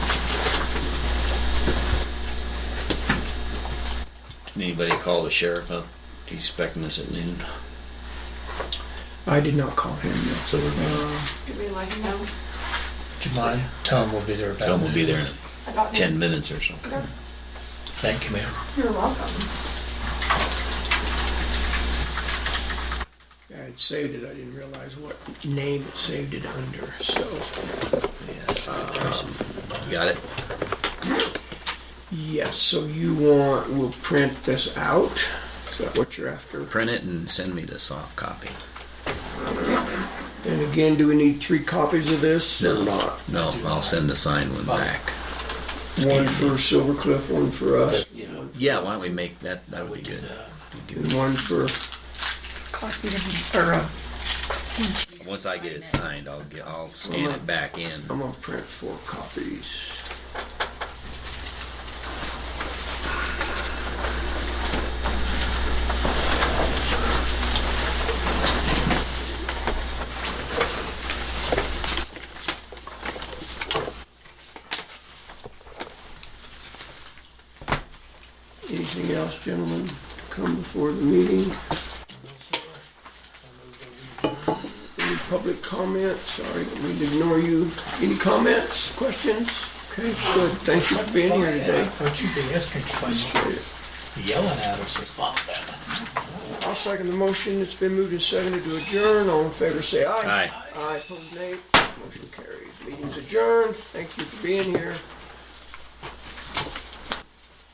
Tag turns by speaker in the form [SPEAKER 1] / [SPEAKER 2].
[SPEAKER 1] Anybody call the sheriff up? He's expecting us at noon,
[SPEAKER 2] I did not call him. no.
[SPEAKER 1] so we're gonna
[SPEAKER 2] Uh,
[SPEAKER 3] Could we let him know
[SPEAKER 4] Do you mind? Tell him we'll be there about.
[SPEAKER 1] tell him we'll be there in
[SPEAKER 3] about
[SPEAKER 1] ten
[SPEAKER 3] him?
[SPEAKER 1] minutes or something.
[SPEAKER 3] Okay.
[SPEAKER 4] Thank you, ma'am.
[SPEAKER 3] You're welcome.
[SPEAKER 2] I had saved it. I didn't realize what name it saved it under. So
[SPEAKER 1] Yeah, that's a good person. Got it?
[SPEAKER 2] yes. So you want? We'll print this out. Is that what you're after?
[SPEAKER 1] Print it and send me the soft copy.
[SPEAKER 2] And again, do we need three copies of this or not?
[SPEAKER 1] No, I'll send the signed one back. Scan.
[SPEAKER 2] One for Silver Cliff, one for us,
[SPEAKER 1] Yeah, why don't we make that, that would be good.
[SPEAKER 2] and one for.
[SPEAKER 5] Copy of- or, uh,
[SPEAKER 1] Once I get it signed, I'll get, I'll scan it back in.
[SPEAKER 2] I'm gonna print four copies. Anything else, gentlemen, come before the meeting? Any public comments? Sorry, we need to ignore you. Any comments, questions? Okay, good. Thanks for being here
[SPEAKER 4] I
[SPEAKER 2] today.
[SPEAKER 4] thought you'd be asking questions, yelling at us or something.
[SPEAKER 2] I'll second the motion. It's been moved and seconded to adjourn. All in favor, say aye.
[SPEAKER 1] Aye.
[SPEAKER 2] Aye, opposed, nay. Motion carries. Meeting's adjourned. Thank you for being here.